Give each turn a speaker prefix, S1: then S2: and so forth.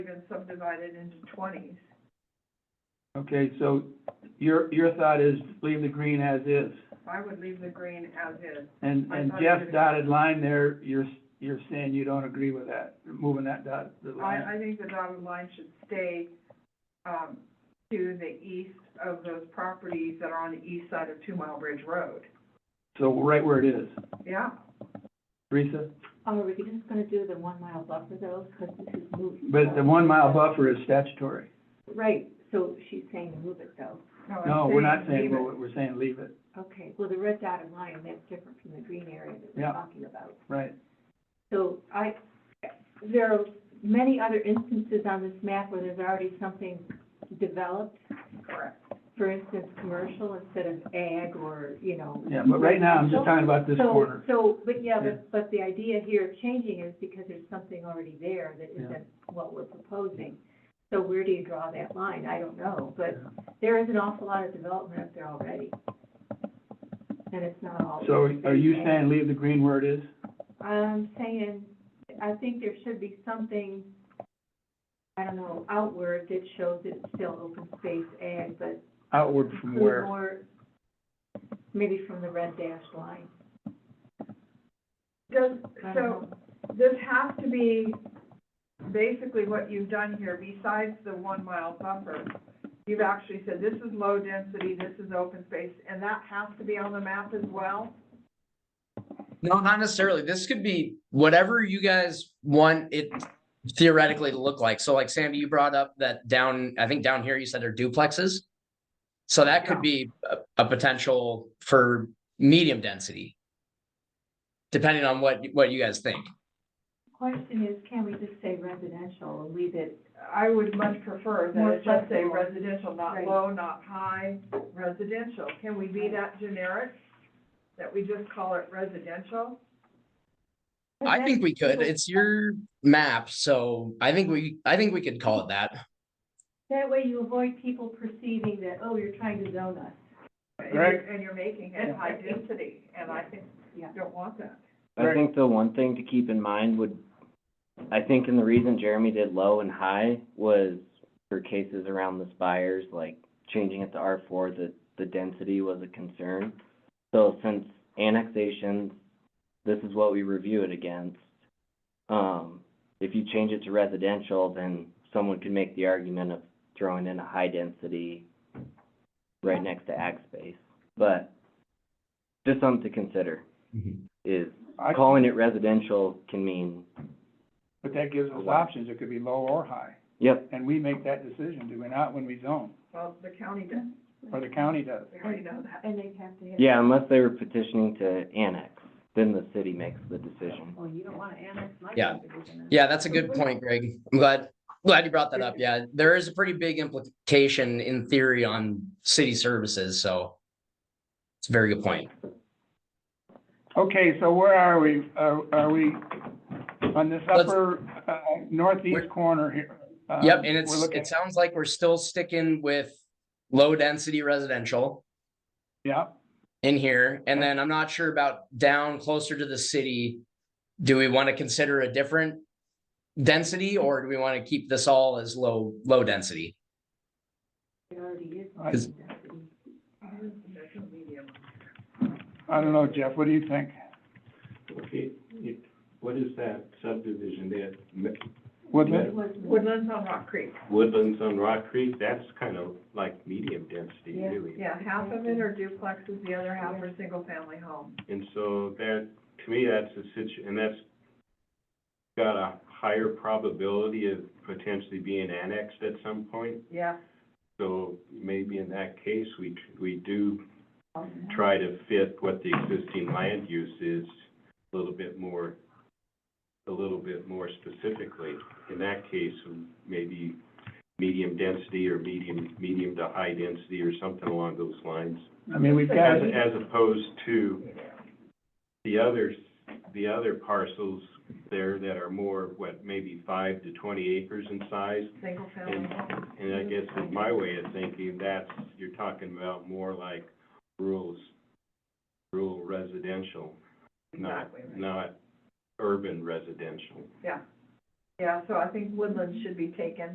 S1: been subdivided into twenties.
S2: Okay, so your, your thought is leave the green as is,
S1: I would leave the green as is.
S2: and,
S1: I
S2: and
S1: thought you
S2: Jeff's
S1: did.
S2: dotted line there, you're, you're saying you don't agree with that, moving that dot, the line.
S1: I, I think the dotted line should stay, um, to the east of those properties that are on the east side of Two Mile Bridge Road.
S2: So right where it is.
S1: Yeah,
S2: Teresa?
S3: Oh, Are we just gonna do the one mile buffer though, because this is moving?
S2: But the one mile buffer is statutory.
S3: Right, so she's saying move it though.
S1: no, I'm
S2: No, we're not
S1: leave
S2: saying,
S1: it.
S2: well, we're saying leave it,
S3: Okay, well, the red dotted line, that's different from the green area that
S2: Yeah.
S3: we're talking about.
S2: right?
S3: So I, there are many other instances on this map where there's already something developed.
S1: Correct.
S3: For instance, commercial instead of ag or, you know.
S2: Yeah, but right now, I'm just talking about this
S3: So-
S2: corner.
S3: So, but yeah,
S2: Yeah.
S3: but, but the idea here of changing is because there's something already there that
S2: Yeah.
S3: isn't what we're proposing. So where do you draw that line? I don't know, but there is an awful lot of development up there already. And it's not all.
S2: So are you saying leave the green where it is?
S3: I'm saying, I think there should be something, I don't know, outward that shows it's still open space ag, but
S2: Outward from
S3: include
S2: where?
S3: more, maybe from the red dashed line.
S1: Does,
S3: I don't
S1: so,
S3: know.
S1: this has to be basically what you've done here, besides the one mile buffer. You've actually said, this is low density, this is open space, and that has to be on the map as well?
S4: No, not necessarily. This could be whatever you guys want it theoretically to look like. So like Sandy, you brought up that down, I think down here you said are duplexes. So that could
S1: Yeah.
S4: be a, a potential for medium density. Depending on what, what you guys think.
S3: Question is, can we just say residential and leave it?
S1: I would much prefer that
S3: More
S1: it just say
S3: flexible.
S1: residential, not
S3: Right.
S1: low, not high, residential. Can we be that generic? That we just call it residential?
S4: I think we could. It's your map, so I think we, I think we could call it that.
S3: That way you avoid people perceiving that, oh, you're trying to zone us.
S1: And
S2: Right.
S1: you're, and you're making it high
S3: Yeah.
S1: density, and I think you
S3: Yeah.
S1: don't want that.
S5: I
S2: Right.
S5: think the one thing to keep in mind would, I think in the reason Jeremy did low and high was for cases around the spires, like changing it to R four, the, the density was a concern. So since annexations, this is what we review it against. Um, if you change it to residential, then someone could make the argument of throwing in a high density right next to ag space, but just something to consider is
S2: I-
S5: calling it residential can mean,
S2: But that gives us options, it could be low or high,
S5: yep,
S2: and we make that decision, do we not, when we zone,
S1: Well, the county does,
S2: or the county does?
S1: we already know that.
S3: And they'd have to have.
S5: yeah, unless they were petitioning to annex, then the city makes the decision.
S3: Well, you don't wanna annex my
S4: Yeah.
S3: subdivision.
S4: Yeah, that's a good point, Greg. I'm glad, glad you brought that up. Yeah, there is a pretty big implication in theory on city services, so. It's a very good point.
S2: Um, Okay, so where are we, are, are we on this
S4: Let's-
S2: upper, uh, northeast corner here? Uh,
S4: Yep, and it's,
S2: we're looking-
S4: it sounds like we're still sticking with low density residential
S2: Yeah,
S4: in here. And then I'm not sure about down closer to the city. Do we want to consider a different density or do we want to keep this all as low, low density?
S3: It already is.
S2: I-
S3: density.
S1: There's no medium.
S2: I don't know, Jeff, what do you think?
S6: Okay, it, what is that subdivision there? Me-
S2: Woodland,
S3: It was-
S1: Woodlands on Rock Creek,
S6: Woodlands on Rock Creek, that's kind of like medium density,
S3: Yeah.
S6: really.
S1: yeah, half of it are duplexes, the other half are single-family homes.
S6: And so that, to me, that's a situ, and that's got a higher probability of potentially being annexed at some point.
S1: Yeah.
S6: So maybe in that case, we, tr- we do try to fit what the existing land use is a little bit more, a little bit more specifically. In that case, maybe medium density or medium, medium to high density or something along those lines.
S2: I mean, we've got,
S6: As, as opposed to the others, the other parcels there that are more, what, maybe five to twenty acres in size?
S1: Single-family homes.
S6: And I guess in my way of thinking, that's, you're talking about more like rural, s- rural residential, not,
S1: Exactly right.
S6: not urban residential.
S1: Yeah, so I think woodland should be taken